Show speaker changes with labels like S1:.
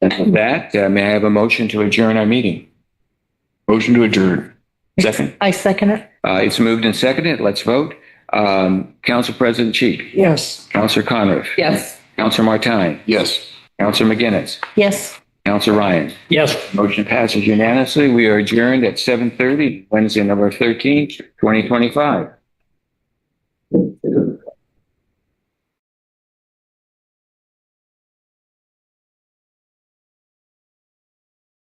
S1: And with that, uh, may I have a motion to adjourn our meeting?
S2: Motion to adjourn.
S1: Second.
S3: I second it.
S1: Uh, It's moved and seconded. Let's vote. Um, Council President Cheek,
S3: Yes.
S1: Councilor Conriff.
S4: Yes.
S1: Councilor Martine,
S2: Yes.
S1: Councilor McGinnis,
S3: Yes.
S1: Councilor Ryan.
S3: Yes.
S1: Motion passes unanimously. We are adjourned at 7:30, Wednesday, November 13th, 2025.